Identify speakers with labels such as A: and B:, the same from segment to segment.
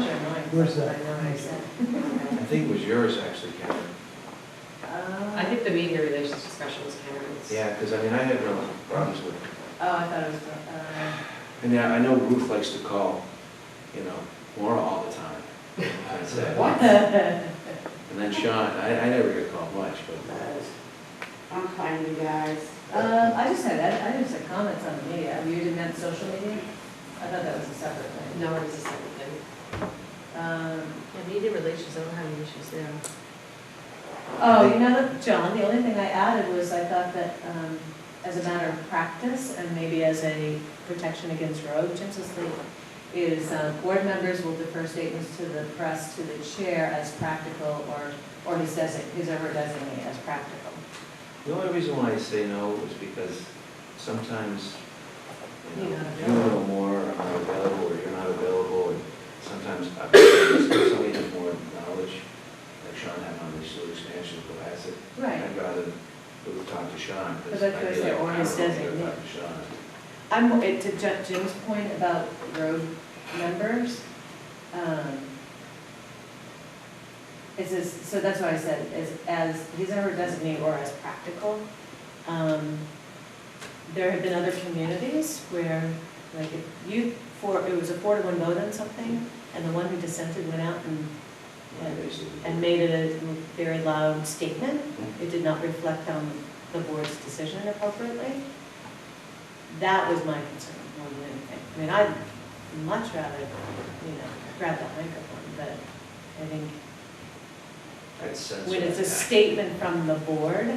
A: Where's that?
B: I
C: think it was yours actually, Karen.
B: I think the media relations discussion was Karen's.
C: Yeah, because I mean, I had no problems with it.
D: Oh, I thought it was, uh,
C: I mean, I I know Ruth likes to call, you know, Laura all the time. I'd say.
A: What?
D: uh,
C: And then Sean, I, I never get called much, but
B: uh,
E: I'm fine, you guys.
D: um, I just had, I I just had comments on the media, you didn't have social media? I thought that was a separate thing.
B: No, it was a second thing.
D: Um,
F: Yeah, media relations, I don't have any issues there.
D: Oh, you know, what, John, the only thing I added was I thought that um, as a matter of practice and maybe as a protection against rogue league is uh, board members will defer statements to the press to the chair as practical or, or his designate, his or her designate as practical.
C: the only reason why I say no was because sometimes, you know,
D: You're not
C: if you're a little more, I'm not available, or you're not available, and sometimes I- somebody has more knowledge, like Sean had on the sewer expansion, but I said, I'd rather Ruth talk to Sean.
D: But that's what I
C: feel
D: said,
C: like
D: or
C: I
D: his
C: don't know,
D: designate.
C: talk to Sean.
D: I'm, it- to Ju- Jim's point about road members, um, it says, so that's why I said, is as, he's ever designated or as practical. Um, There have been other communities where, like, if you, for, it was a four to one vote on something, and the one who dissented went out and,
C: Yeah, basically.
D: and made a very loud statement, it did not reflect on the board's decision appropriately. That was my concern more than anything. I mean, I'd much rather, you know, grab that microphone, but I think
C: I'd sense
D: when it's a
C: that.
D: statement from the board,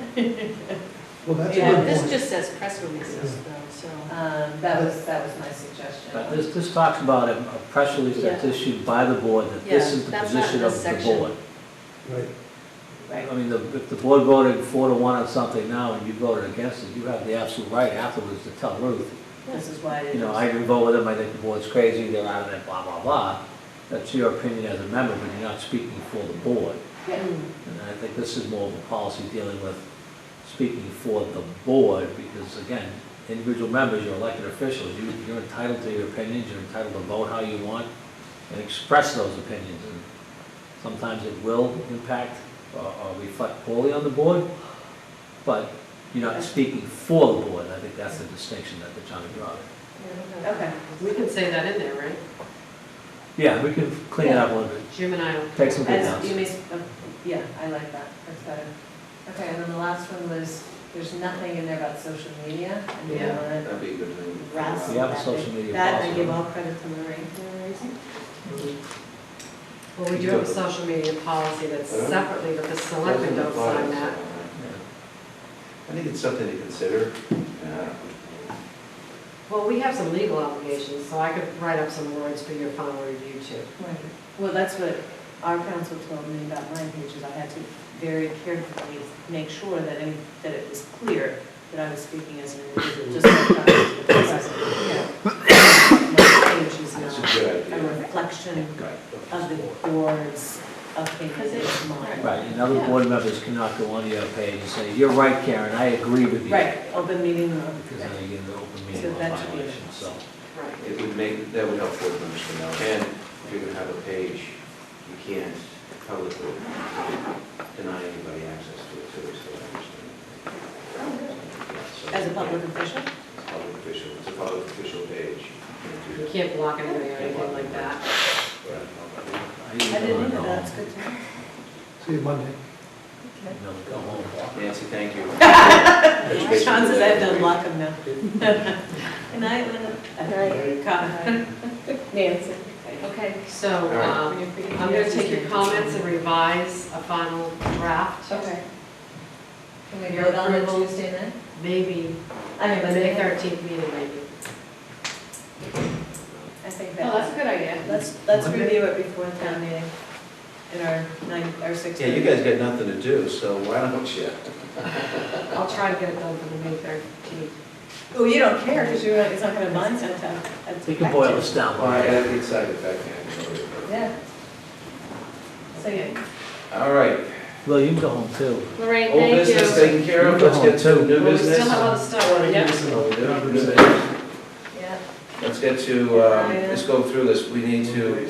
A: Well, that's a
D: Yeah,
A: good
F: This
A: point.
F: just says press releases though, so.
D: um, that was, that was my suggestion.
G: But This, this talks about a a press release that's
F: Yeah.
G: issued by the board, that this
F: Yeah,
G: is the
F: that's not
G: position
F: in this
G: of the
F: section.
G: board.
A: Right.
D: Right.
G: I mean, the- if the board voted four to one on something now and you voted against it, you have the absolute right afterwards to tell Ruth,
D: This is why I
G: you
D: didn't.
G: know, I didn't vote with them, I think the board's crazy, they're out of it, blah, blah, blah. That's your opinion as a member, but you're not speaking for the board.
D: Yeah.
G: And I think this is more of a policy dealing with speaking for the board, because again, individual members, you're elected officials, you, you're entitled to your opinions, you're entitled to vote how you want and express those opinions. And Sometimes it will impact or or reflect poorly on the board, but you're not speaking for the board. I think that's the distinction that they're trying to draw.
D: Okay.
B: We can say that in there, right?
G: Yeah, we can clean it up a little bit,
B: Jim and I will.
G: take some good notes.
D: As you may, s- uh, yeah, I like that, that's better. Okay, and then the last one was, there's nothing in there about social media, and you
B: Yeah.
D: want to
C: That'd be a good thing.
D: Rats.
G: We have a social media
D: That I
G: policy.
D: give all credit to Lorraine for raising.
B: Well, we do have a social media policy that's separately, but the selectmen don't sign that.
C: uh, I think it's something to consider. Yeah.
B: Well, we have some legal obligations, so I could write up some words for your final review too.
D: Well, that's what our council told me about mine, which is I had to very carefully make sure that, I- that it was clear that I was speaking as an individual, just like I was with the president. My page is
C: That's a
D: not
C: good
D: a
C: idea.
D: reflection
G: Right.
D: of the board's opinion of mine.
G: Right, and other board members cannot go onto your page and say, you're right, Karen, I agree with you.
D: Right, open meeting law.
G: Because then you get an open
D: So
G: meeting law
D: that should be-
G: violation, so.
B: Right.
C: It would make, that would help board members to know. And if you're gonna have a page, you can't publicly deny anybody access to it, too, so I understand. Yeah, so-
D: As a public official?
C: It's a public official, it's a public official page. You
B: You
C: can't do
B: can't block anybody or anything like that.
C: that.
D: I didn't know that, that's good to know.
A: See you Monday.
G: You know, go home.
C: Nancy, thank you.
D: Chances I've done block them now. Good night, Linda.
F: Good
D: Con- Nancy.
B: Okay, so,
C: right.
B: um, I'm gonna take your comments and revise a final draft.
D: Okay. Can
B: we vote on it Tuesday
D: night?
B: Maybe,
D: I mean,
B: the
D: but
B: May
D: they,
B: thirteenth meeting maybe.
D: I think
B: Oh, that's a
D: that,
B: good idea.
D: let's, let's
C: Monday?
D: review it before town meeting in our nine, our six.
C: Yeah, you guys got nothing to do, so why don't you?
B: I'll try to get it done for the May thirteenth.
D: Oh, you don't care, because you're, not- it's not gonna bind sometime.
G: You can boil this down.
C: All right, I'd be excited if I can.
D: Yeah. So, yeah.
C: All right,
G: Well, you can go home too.
F: Lorraine,
C: old
F: thank
C: business
F: you.
C: taken care of, let's get to new
B: Well, we still
C: business.
B: have other stuff, yeah.
C: New business.
D: Yeah.
C: Let's get to, um, let's go through this, we need to